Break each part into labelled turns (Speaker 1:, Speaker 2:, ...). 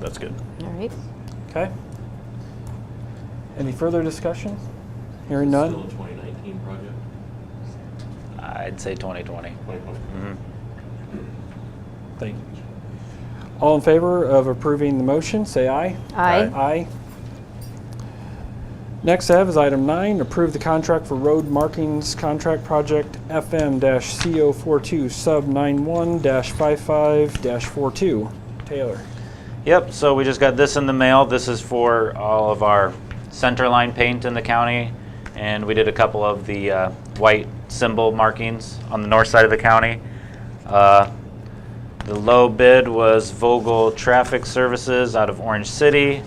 Speaker 1: That's good.
Speaker 2: All right.
Speaker 3: Okay. Any further discussion? Hearing none?
Speaker 4: Still a 2019 project?
Speaker 5: I'd say 2020.
Speaker 4: 2020.
Speaker 5: Mm-hmm.
Speaker 3: Thank you. All in favor of approving the motion, say aye.
Speaker 2: Aye.
Speaker 3: Aye. Next I have is item nine, approve the contract for road markings contract project FM-CO42 sub 91-55-42. Taylor.
Speaker 5: Yep, so we just got this in the mail. This is for all of our center line paint in the county. And we did a couple of the uh, white symbol markings on the north side of the county. Uh, The low bid was Vogel Traffic Services out of Orange City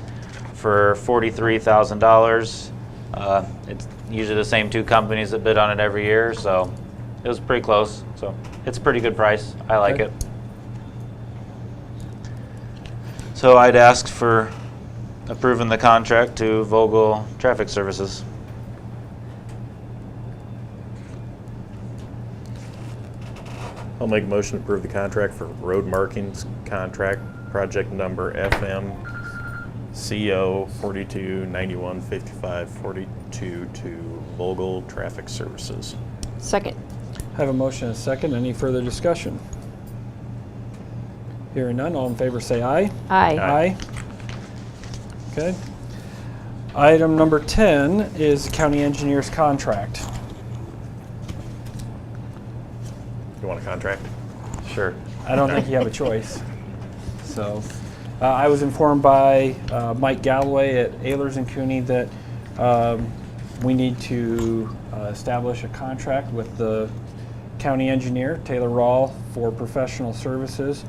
Speaker 5: for forty-three thousand dollars. Uh, It's usually the same two companies that bid on it every year, so it was pretty close. So it's a pretty good price. I like
Speaker 3: Okay.
Speaker 5: it. So I'd ask for approving the contract to Vogel Traffic Services.
Speaker 1: I'll make a motion to approve the contract for road markings contract, project number FM CO forty-two ninety-one fifty-five forty-two to Vogel Traffic Services.
Speaker 2: Second.
Speaker 3: Have a motion and a second. Any further discussion? Hearing none, all in favor say aye.
Speaker 2: Aye.
Speaker 3: Aye. Okay. Item number 10 is county engineer's contract.
Speaker 1: You want a contract?
Speaker 5: Sure.
Speaker 3: I don't think you have a choice. So, uh, I was informed by uh, Mike Galloway at Ayers and Cooney that um, we need to uh, establish a contract with the county engineer, Taylor Rawl, for professional services.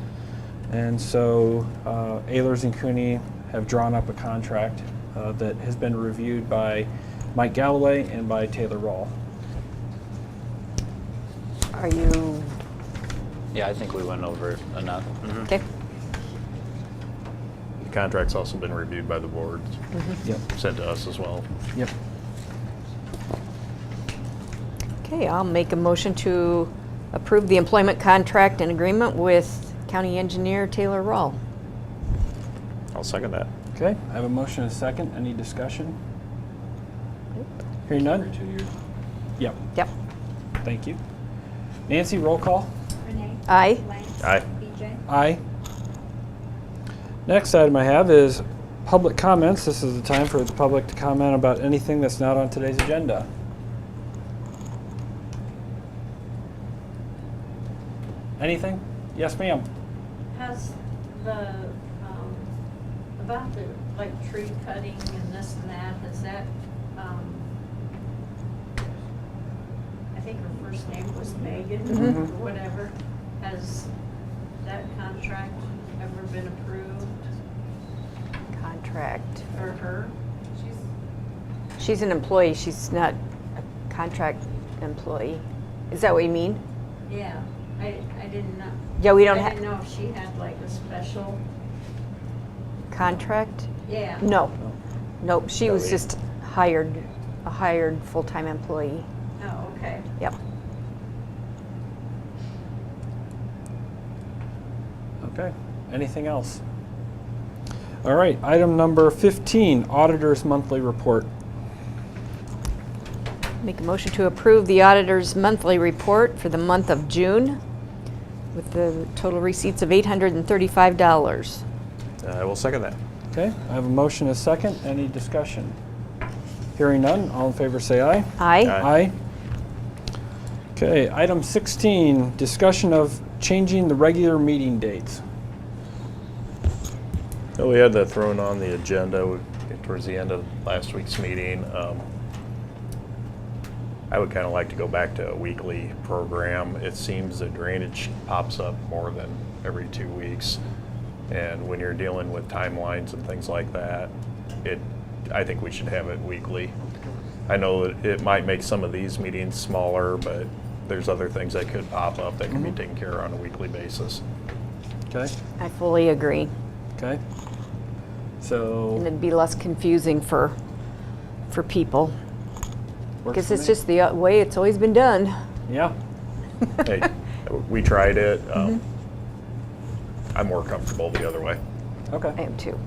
Speaker 3: And so uh, Ayers and Cooney have drawn up a contract uh, that has been reviewed by Mike Galloway and by Taylor Rawl.
Speaker 2: Are you,
Speaker 5: Yeah, I think we went over it enough. Mhm.
Speaker 2: okay,
Speaker 1: The contract's also been reviewed by the board,
Speaker 3: Yep.
Speaker 1: sent to us as well.
Speaker 3: Yep.
Speaker 2: okay, I'll make a motion to approve the employment contract and agreement with County Engineer Taylor Rawl.
Speaker 1: I'll second that.
Speaker 3: Okay, I have a motion and a second. Any discussion? Hearing
Speaker 4: Every
Speaker 3: none?
Speaker 4: two years?
Speaker 3: Yep,
Speaker 2: Yep.
Speaker 3: thank you. Nancy, roll call.
Speaker 6: Renee?
Speaker 2: Aye.
Speaker 6: Lance?
Speaker 1: Aye.
Speaker 6: BJ?
Speaker 3: Aye. Next item I have is public comments. This is the time for the public to comment about anything that's not on today's agenda. Anything? Yes, ma'am.
Speaker 7: Has the, um, about the, like, tree cutting and this and that, has that, um, I think her first name was Megan or
Speaker 3: Mhm.
Speaker 2: Mm-hmm.
Speaker 7: whatever, has that contract ever been approved
Speaker 2: Contract.
Speaker 7: for her?
Speaker 2: She's an employee, she's not a contract employee. Is that what you mean?
Speaker 7: Yeah, I, I didn't know.
Speaker 2: Yeah, we don't
Speaker 7: I
Speaker 2: ha-
Speaker 7: didn't know if she had like a special,
Speaker 2: Contract?
Speaker 7: yeah.
Speaker 2: No. Nope, she
Speaker 1: No,
Speaker 2: was
Speaker 1: we-
Speaker 2: just hired, a hired full-time employee.
Speaker 7: Oh, okay.
Speaker 2: Yep.
Speaker 3: Okay, anything else? All right, item number 15, Auditor's Monthly Report.
Speaker 2: Make a motion to approve the auditor's monthly report for the month of June with the total receipts of $835.
Speaker 1: I will second that.
Speaker 3: Okay, I have a motion and a second. Any discussion? Hearing none, all in favor say aye.
Speaker 2: Aye.
Speaker 1: Aye.
Speaker 3: Okay, item 16, discussion of changing the regular meeting dates.
Speaker 1: Well, We had that thrown on the agenda towards the end of last week's meeting. Um, I would kind of like to go back to a weekly program. It seems that drainage pops up more than every two weeks. And when you're dealing with timelines and things like that, it, I think we should have it weekly. I know that it might make some of these meetings smaller, but there's other things that could pop up that can be taken care of on a weekly basis.
Speaker 3: Okay,
Speaker 2: I fully agree.
Speaker 3: okay.
Speaker 2: And
Speaker 3: So,
Speaker 2: it'd be less confusing for, for people.
Speaker 3: works
Speaker 2: Because
Speaker 3: for
Speaker 2: it's
Speaker 3: me.
Speaker 2: just the uh, way it's always been done.
Speaker 3: Yeah,
Speaker 1: hey, we tried it. Um, I'm more comfortable the other way.
Speaker 3: Okay.
Speaker 2: I am too.